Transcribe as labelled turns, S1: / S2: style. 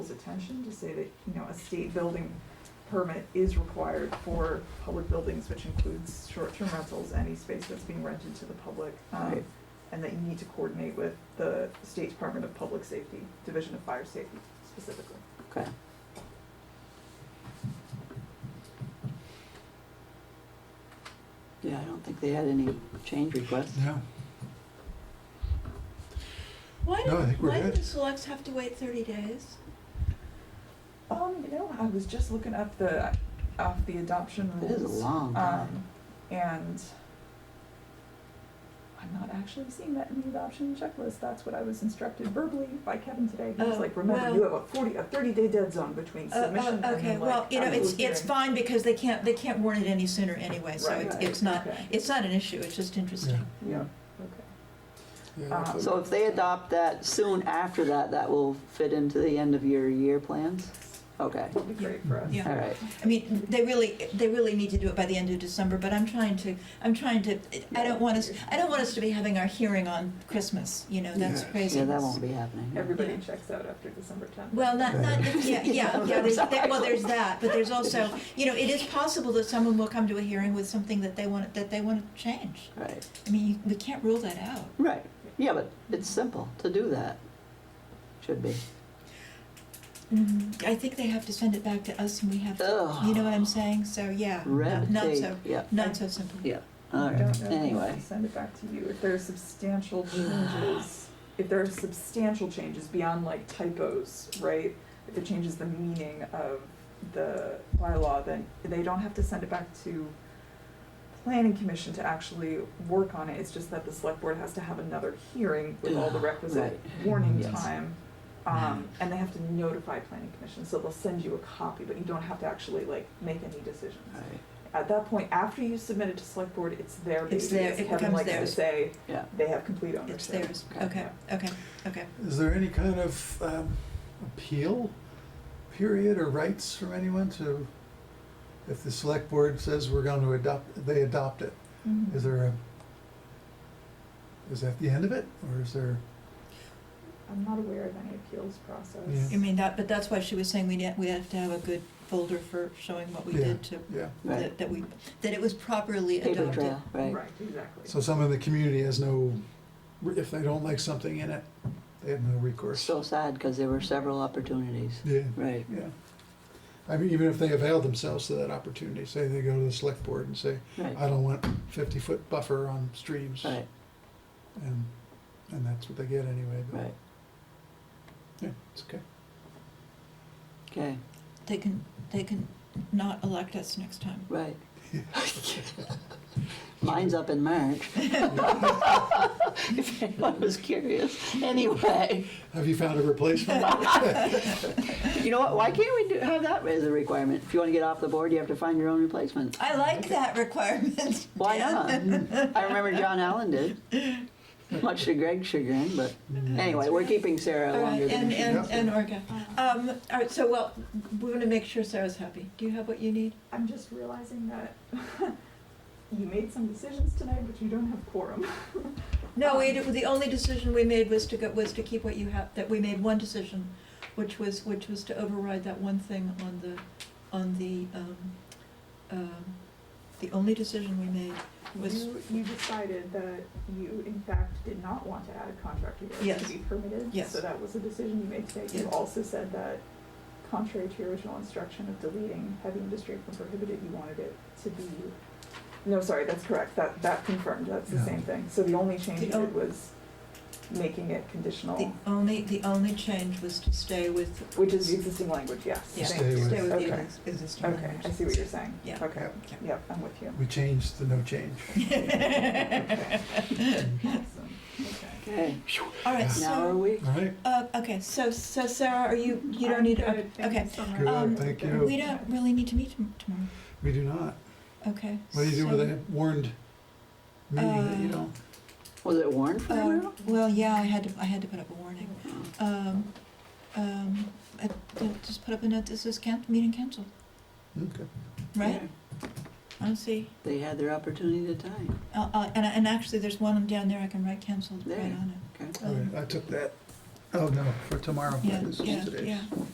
S1: people's attention to say that, you know, a state building permit is required for public buildings, which includes short-term rentals, any space that's being rented to the public. um,
S2: Right.
S1: And that you need to coordinate with the State Department of Public Safety, Division of Fire Safety specifically.
S2: Okay. Yeah, I don't think they had any change requests.
S3: No,
S4: Why
S3: No, I
S4: do,
S3: think we're
S4: why do
S3: good.
S4: the selects have to wait thirty days?
S1: Um, you know, I was just looking up the, up the adoption
S2: It
S1: rules.
S2: is a long
S4: Uh,
S2: time.
S1: Um, and I'm not actually seeing that in the adoption checklist. That's what I was instructed verbally by Kevin today. He was
S4: Oh,
S1: like, remember,
S4: well-
S1: you have a forty, a thirty day dead zone between
S4: Oh,
S1: submission and
S4: oh, okay,
S1: then
S4: well,
S1: like.
S4: you know, it's,
S1: actual
S4: it's
S1: hearing."
S4: fine because they can't, they can't warn it any sooner anyway, so
S1: Right,
S4: it's,
S1: right,
S4: it's not,
S1: okay.
S4: it's not an issue, it's just interesting.
S1: Yeah,
S3: yeah,
S1: Um,
S3: so
S2: Uh, So if they adopt that soon after that, that will fit into the end of your year plans? Okay,
S1: it'd be great for us.
S4: Yeah.
S2: all right.
S4: I mean, they really, they really need to do it by the end of December, but I'm trying to, I'm trying to, I don't want us, I don't want us to be having our hearing on Christmas, you know, that's
S3: Yeah.
S4: crazy.
S2: Yeah, that won't be happening.
S1: Everybody
S4: Yeah.
S1: checks out after December tenth.
S4: Well, not, not, yeah, yeah, yeah, there's, there- well, there's that, but there's also, you know, it is possible that someone will come to a hearing with something that they want, that they want to change.
S2: Right,
S4: I mean, you- we can't rule that out.
S2: right. Yeah, but it's simple to do that. Should be.
S4: Mm, I think they have to send it back to us and we have to,
S2: Ugh.
S4: you know what I'm saying? So, yeah.
S2: Red
S4: not
S2: tape,
S4: so-
S2: yeah,
S4: Not so simple.
S2: yeah, all
S1: I don't
S2: right,
S1: know if we
S2: anyway.
S1: can send it back to you. If there are substantial changes, if there are substantial changes beyond like typos, right? If it changes the meaning of the bylaw, then they don't have to send it back to planning commission to actually work on it. It's just that the select board has to have another hearing with all the requisite warning
S2: Yes.
S1: time. Um, and they have to notify planning commission, so they'll send you a copy, but you don't have to actually like make any decisions.
S2: All right.
S1: At that point, after you submit it to select board, it's their baby.
S4: It's their-
S1: as
S4: it
S1: Kevin
S4: becomes
S1: likes to
S4: theirs.
S1: say,
S2: Yeah.
S1: they have complete ownership.
S4: It's theirs.
S2: Okay.
S4: Okay, okay, okay.
S3: is there any kind of um, appeal period or rights from anyone to, if the select board says we're going to adopt, they adopt it? Is there a, is that the end of it, or is there?
S1: I'm not aware of any appeals process.
S3: Yeah.
S4: I mean, that, but that's why she was saying we need, we have to have a good folder for showing what we
S3: Yeah.
S4: did to,
S3: Yeah.
S2: Right,
S4: that that we, that it was properly
S2: paper
S4: adopted.
S2: trail, right.
S1: Right, exactly.
S3: So someone in the community has no, if they don't like something in it, they have no recourse.
S2: So sad, because there were several opportunities.
S3: Yeah.
S2: Right,
S3: Yeah. I mean, even if they avail themselves to that opportunity, say they go to the select board and say,
S2: right,
S3: I don't want fifty foot buffer on streams.
S2: right,
S3: And, and that's what they get anyway, but,
S2: right.
S3: yeah, it's okay.
S2: Okay,
S4: They can, they can not elect us next time.
S2: right. Mine's up in March. If anyone was curious. Anyway,
S3: Have you found a replacement?
S2: you know what, why can't we do, have that as a requirement? If you want to get off the board, you have to find your own replacement.
S4: I like that requirement.
S2: Why
S4: Dan.
S2: not? I remember John Allen did, much to Greg's chagrin, but anyway, we're keeping Sarah
S4: All right,
S2: longer than
S4: and,
S2: she
S4: and,
S3: should.
S4: and Orga.
S1: Uh,
S4: Um, all right, so, well, we want to make sure Sarah's happy. Do you have what you need?
S1: I'm just realizing that you made some decisions tonight, but you don't have quorum.
S4: No, we, d- the only decision we made was to go, was to keep what you have, that we made one decision, which was, which was to override that one thing on the, on the, um, um, the only decision we made was,
S1: You, you decided that you in fact did not want to add a contractor yard
S4: Yes.
S1: to be permitted.
S4: Yes.
S1: So that was a decision you made today. You
S4: Yes.
S1: also said that contrary to your original instruction of deleting heavy industry from prohibited, you wanted it to be, no, sorry, that's correct. That, that confirmed, that's the
S3: Yeah.
S1: same thing. So the only change
S4: The
S1: you
S4: on-
S1: did was making it
S4: the
S1: conditional,
S4: only, the only change was to stay with,
S1: Oh. which is the existing language, yes.
S4: yeah,
S3: Stay
S1: Thank you.
S3: with-
S4: stay with the
S1: Okay.
S4: ex- existing language.
S1: Okay, I see what you're saying.
S4: Yeah.
S1: Okay,
S4: Okay.
S1: yep, I'm with you.
S3: We changed the no change.
S1: Awesome. Okay.
S2: Okay,
S4: All right,
S2: now are
S4: so,
S2: we?
S3: All right,
S4: uh, okay, so, so Sarah, are you, you don't
S1: I'm
S4: need,
S1: good,
S4: okay,
S1: thank you
S4: okay.
S1: so much.
S3: Good,
S4: Um,
S3: thank you.
S4: We don't really need to meet tom- tomorrow,
S3: we do not.
S4: okay?
S3: What do you do with
S4: so-
S3: a warned meeting that you
S4: Uh,
S3: don't?
S2: Was it Warren for a
S4: Um,
S2: while?
S4: Well, yeah, I had to, I had to put up a warning. Um, um, I I just put up a note, this is can, meeting canceled,
S3: Okay.
S4: right? I don't see,
S2: They had their opportunity to time.
S4: uh, uh, and, I- and actually, there's one down there I can write canceled right
S2: There.
S4: on it.
S2: Okay.
S3: All
S4: Um,
S3: right, I took that, oh no, for tomorrow,
S4: Yeah,
S3: this is
S4: yeah,
S3: today's.
S4: yeah.